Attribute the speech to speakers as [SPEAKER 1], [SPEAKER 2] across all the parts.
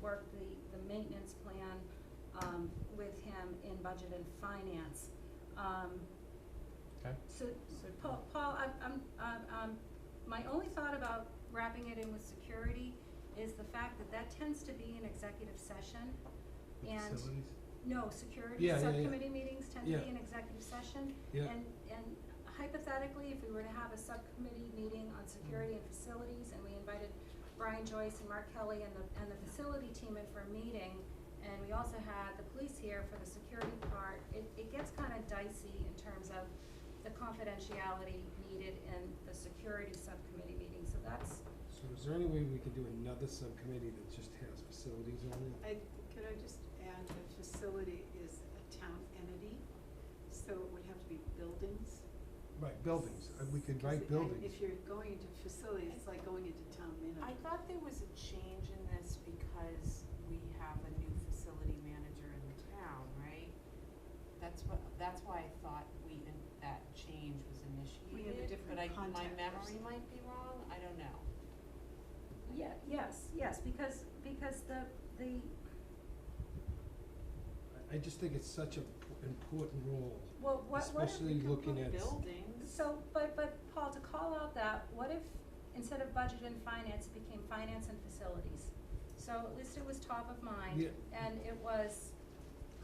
[SPEAKER 1] work the, the maintenance plan, um, with him in budget and finance. Um,
[SPEAKER 2] Okay.
[SPEAKER 1] so, so Paul, Paul, I'm, I'm, I'm- um, my only thought about wrapping it in with security is the fact that that tends to be an executive session.
[SPEAKER 2] The
[SPEAKER 1] And,
[SPEAKER 2] Facilities,
[SPEAKER 1] no, security
[SPEAKER 2] Yeah, yeah, yeah.
[SPEAKER 1] subcommittee meetings tend to
[SPEAKER 2] Yeah.
[SPEAKER 1] be an executive session.
[SPEAKER 2] Yeah.
[SPEAKER 1] And, and hypothetically, if we were to have a subcommittee meeting on security and facilities, and we invited Brian Joyce and Mark Kelly and the, and the facility team in for a meeting, and we also had the police here for the security part, it, it gets kinda dicey in terms of the confidentiality needed in the security subcommittee meeting, so that's,
[SPEAKER 3] So is there any way we could do another subcommittee that just has facilities on it?
[SPEAKER 4] I, could I just add that facility is a town entity, so it would have to be buildings.
[SPEAKER 3] Right, buildings, Uh, we could
[SPEAKER 4] 'Cause
[SPEAKER 3] write
[SPEAKER 4] I-
[SPEAKER 3] buildings.
[SPEAKER 4] If you're going into facilities, it's like going into town
[SPEAKER 5] I
[SPEAKER 4] manager.
[SPEAKER 5] thought there was a change in this because we have a new facility manager in the town, right? That's what, that's why I thought we, in- that change was initiated,
[SPEAKER 4] different
[SPEAKER 5] but I, my
[SPEAKER 4] contact
[SPEAKER 5] memory
[SPEAKER 4] person.
[SPEAKER 5] might be wrong, I don't know.
[SPEAKER 1] yeah, yes, yes, because, because the, the,
[SPEAKER 3] I, I just think it's such an important role.
[SPEAKER 1] well, what, what if
[SPEAKER 3] Especially looking at, s-
[SPEAKER 5] Buildings.
[SPEAKER 1] So, but, but Paul, to call out that, what if instead of budget and finance, it became finance and facilities? So at least it was top of mind
[SPEAKER 3] Yeah.
[SPEAKER 1] and it was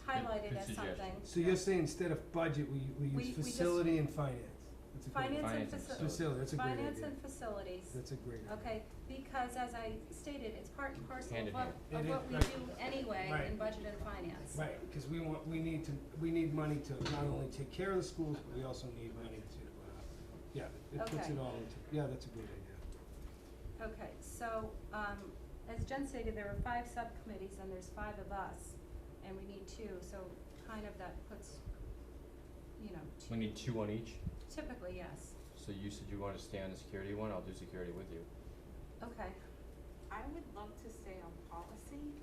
[SPEAKER 1] highlighted
[SPEAKER 2] good
[SPEAKER 1] as something.
[SPEAKER 2] suggestion.
[SPEAKER 3] so you're saying instead of budget, we,
[SPEAKER 1] We-
[SPEAKER 3] we
[SPEAKER 1] we
[SPEAKER 3] use
[SPEAKER 1] just-
[SPEAKER 3] facility and finance? That's a great idea.
[SPEAKER 1] Finance
[SPEAKER 2] Finance
[SPEAKER 1] and
[SPEAKER 2] and
[SPEAKER 1] faci-
[SPEAKER 3] Facility, that's a great idea.
[SPEAKER 1] finance and facilities,
[SPEAKER 3] That's a great idea.
[SPEAKER 1] okay, because as I stated, it's part and parcel
[SPEAKER 2] Hand
[SPEAKER 1] of
[SPEAKER 2] in
[SPEAKER 1] what,
[SPEAKER 2] hand.
[SPEAKER 1] of
[SPEAKER 3] It
[SPEAKER 1] what
[SPEAKER 3] is,
[SPEAKER 1] we do
[SPEAKER 3] right.
[SPEAKER 1] anyway in
[SPEAKER 3] Right.
[SPEAKER 1] budget and finance.
[SPEAKER 3] Right, cause we want, we need to, we need money to not only take care of the schools, but we also need money to, uh, yeah, it puts
[SPEAKER 1] Okay.
[SPEAKER 3] it all into, yeah, that's a great idea.
[SPEAKER 1] Okay, so, um, as Jen stated, there are five subcommittees and there's five of us, and we need two, so kind of that puts, you know,
[SPEAKER 2] we need two on each,
[SPEAKER 1] two- typically, yes,
[SPEAKER 2] so you said you wanna stay on the security one, I'll do security with you.
[SPEAKER 1] okay.
[SPEAKER 5] I would love to stay on policy.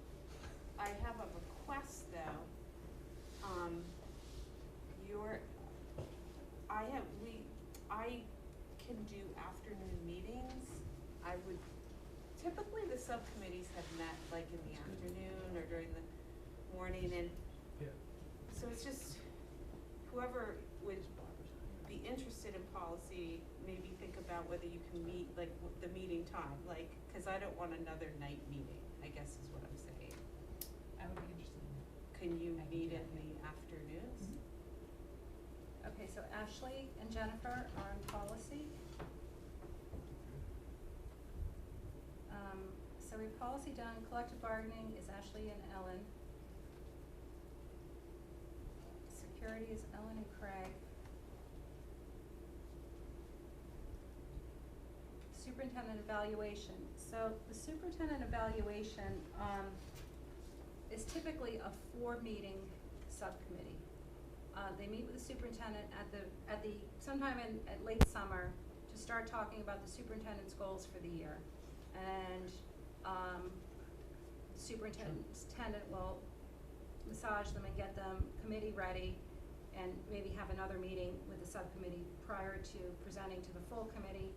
[SPEAKER 5] I have a request though. Um, your, I have, we, I can do afternoon meetings. I would, typically the subcommittees have met like in the afternoon or during the morning and
[SPEAKER 3] Yeah.
[SPEAKER 5] so it's just whoever would be interested in policy, maybe think about whether you can meet, like, w- the meeting time, like, cause I don't want another night meeting, I guess is what I'm saying.
[SPEAKER 6] I would be interested in that. Mm-hmm.
[SPEAKER 5] Can you
[SPEAKER 6] I can
[SPEAKER 5] meet
[SPEAKER 6] do
[SPEAKER 5] in
[SPEAKER 6] that.
[SPEAKER 5] the afternoons?
[SPEAKER 1] Okay, so Ashley and Jennifer are on policy. Um, so we have policy done, collective bargaining is Ashley and Ellen. Security is Ellen and Craig. Superintendent evaluation, so the superintendent evaluation, um, is typically a four-meeting subcommittee. Uh, they meet with the superintendent at the, at the, sometime in, at late summer, to start talking about the superintendent's goals for the year. And, um, superintendent will massage them and get them committee ready, and maybe have another meeting with the subcommittee prior to presenting to the full committee.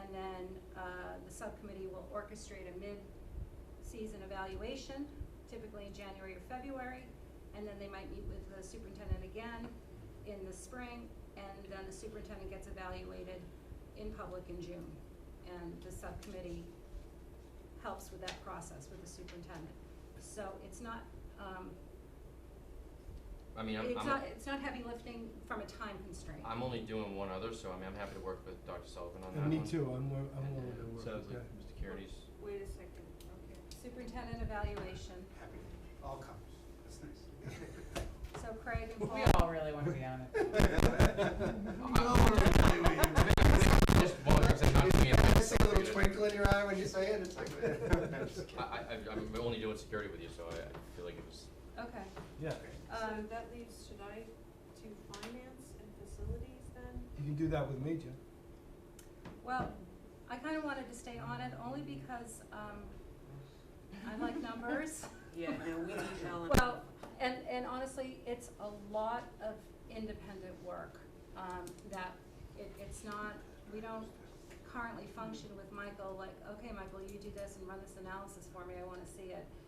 [SPEAKER 1] And then, uh, the subcommittee will orchestrate a mid-season evaluation, typically in January or February. And then they might meet with the superintendent again in the spring, and then the superintendent gets evaluated in public in June. And the subcommittee helps with that process with the superintendent. So it's not, um,
[SPEAKER 2] I mean, I'm,
[SPEAKER 1] it's
[SPEAKER 2] I'm,
[SPEAKER 1] not, it's not heavy lifting from a time constraint.
[SPEAKER 2] I'm only doing one other, so I mean, I'm happy to work with Dr. Sullivan on that
[SPEAKER 3] And
[SPEAKER 2] one.
[SPEAKER 3] me too, I'm, wi- I'm willing to work with that.
[SPEAKER 2] Sounds like Mr. Carey's,
[SPEAKER 5] Wait a second, okay.
[SPEAKER 1] Superintendent evaluation,
[SPEAKER 7] Happy, all comers, that's
[SPEAKER 1] so Craig and Paul.
[SPEAKER 6] We all really wanna be on it.
[SPEAKER 7] nice.
[SPEAKER 2] just bothers and knocks me out.
[SPEAKER 7] I see a little twinkle in your eye when you say it, it's like.
[SPEAKER 2] I, I, I- I'm only doing security with you, so I, I feel like it was,
[SPEAKER 1] Okay,
[SPEAKER 3] Yeah,
[SPEAKER 1] um,
[SPEAKER 5] So that leaves, should I do finance and facilities then?
[SPEAKER 3] you can do that with me, Jen.
[SPEAKER 1] well, I kinda wanted to stay on it only because, um, I like numbers.
[SPEAKER 5] Yeah, no, we need Ellen.
[SPEAKER 1] Well, and, and honestly, it's a lot of independent work, um, that it, it's not, we don't currently function with Michael, like, okay, Michael, you do this and run this analysis for me, I wanna see it.